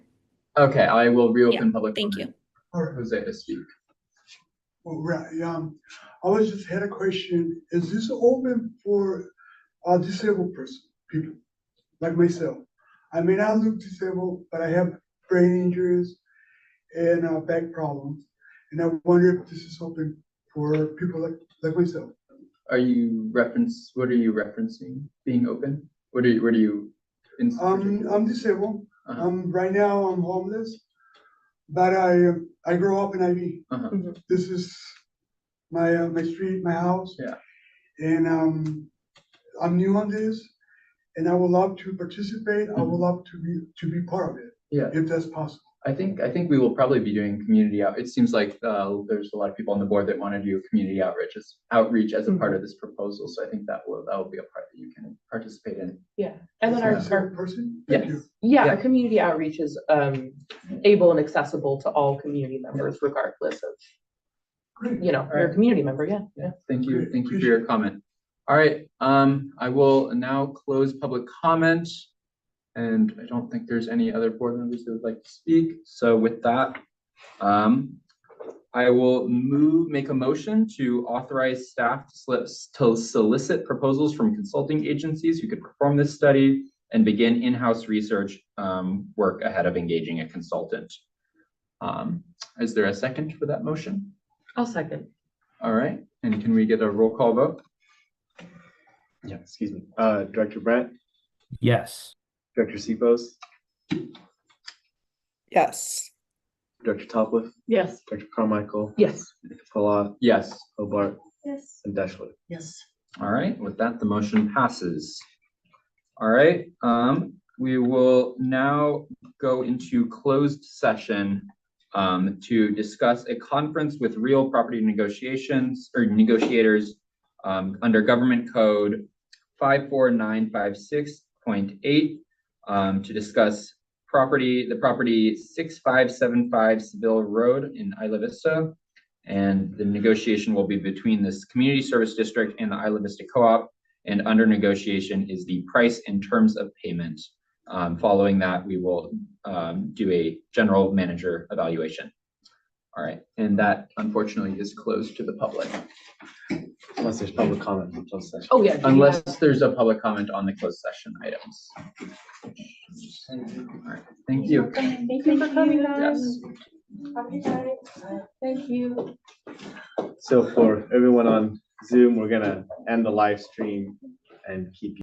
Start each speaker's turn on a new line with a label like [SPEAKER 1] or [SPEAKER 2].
[SPEAKER 1] Okay, I will reopen public.
[SPEAKER 2] thank
[SPEAKER 1] comment for
[SPEAKER 3] Or,
[SPEAKER 1] Jose to speak.
[SPEAKER 3] well, right, um, I was just had a question, is this open for, uh, disabled person, people, like myself? I may not look disabled, but I have brain injuries and, uh, back problems, and I wonder if this is open for people like, like myself.
[SPEAKER 1] Are you reference, what are you referencing being open? What are you, what are you? in-
[SPEAKER 3] Um, I'm disabled,
[SPEAKER 1] Uh-huh,
[SPEAKER 3] um, right now I'm homeless, but I, uh, I grew up in IV.
[SPEAKER 1] uh-huh.
[SPEAKER 4] Mm-hmm.
[SPEAKER 3] this is my, uh, my street, my house.
[SPEAKER 1] Yeah.
[SPEAKER 3] And, um, I'm new on this and I would love to participate. I would love to be, to be part of it.
[SPEAKER 1] Mm-hmm. Yeah.
[SPEAKER 3] If that's possible.
[SPEAKER 1] I think, I think we will probably be doing community out, it seems like, uh, there's a lot of people on the board that want to do community outreach as, outreach as a
[SPEAKER 3] Mm-hmm.
[SPEAKER 1] part of this proposal, so I think that will, that will be a part that you can participate in.
[SPEAKER 4] Yeah, and then
[SPEAKER 3] For
[SPEAKER 4] our,
[SPEAKER 3] the same
[SPEAKER 4] our,
[SPEAKER 3] Person? Thank
[SPEAKER 1] Yes,
[SPEAKER 3] you.
[SPEAKER 4] yeah, our
[SPEAKER 1] Yeah.
[SPEAKER 4] community outreach is um able and accessible to all community members regardless of,
[SPEAKER 3] Great.
[SPEAKER 4] you know, you're
[SPEAKER 1] Alright.
[SPEAKER 4] a community member, yeah, yeah.
[SPEAKER 1] yeah, thank you,
[SPEAKER 3] Great,
[SPEAKER 1] thank you for
[SPEAKER 3] appreciate
[SPEAKER 1] your comment. All right, um, I will now close public comment. And I don't think there's any other board members that would like to speak, so with that, um, I will move, make a motion to authorize staff to slip, to solicit proposals from consulting agencies who could perform this study and begin in-house research, um, work ahead of engaging a consultant. Um, is there a second for that motion?
[SPEAKER 4] I'll second.
[SPEAKER 1] All right, and can we get a roll call vote?
[SPEAKER 5] Yeah, excuse me. Uh, Director Brent,
[SPEAKER 6] Yes.
[SPEAKER 5] Director Sebos,
[SPEAKER 7] Yes.
[SPEAKER 5] Director Topliff,
[SPEAKER 4] Yes.
[SPEAKER 5] Director Carmichael,
[SPEAKER 4] Yes.
[SPEAKER 5] Palat,
[SPEAKER 1] Yes,
[SPEAKER 5] Hobart,
[SPEAKER 2] Yes.
[SPEAKER 5] and Deschler.
[SPEAKER 4] Yes.
[SPEAKER 1] all right, with that, the motion passes. All right, um, we will now go into closed session um, to discuss a conference with real property negotiations or negotiators um, under government code five, four, nine, five, six point eight um, to discuss property, the property six, five, seven, five Seville Road in Isla Vista. And the negotiation will be between this community service district and the Isla Vista Co-op. And under negotiation is the price and terms of payment. Um, following that, we will um, do a general manager evaluation. All right, and that unfortunately is closed to the public,
[SPEAKER 5] Unless there's public comment from closed session.
[SPEAKER 4] Oh, yeah. do you
[SPEAKER 1] unless
[SPEAKER 4] have-
[SPEAKER 1] there's a public comment on the closed session items. All right, Thank you.
[SPEAKER 8] Thank you for coming, guys.
[SPEAKER 1] Yes.
[SPEAKER 8] Happy night. Thank you.
[SPEAKER 5] So for everyone on Zoom, we're gonna end the live stream and keep you.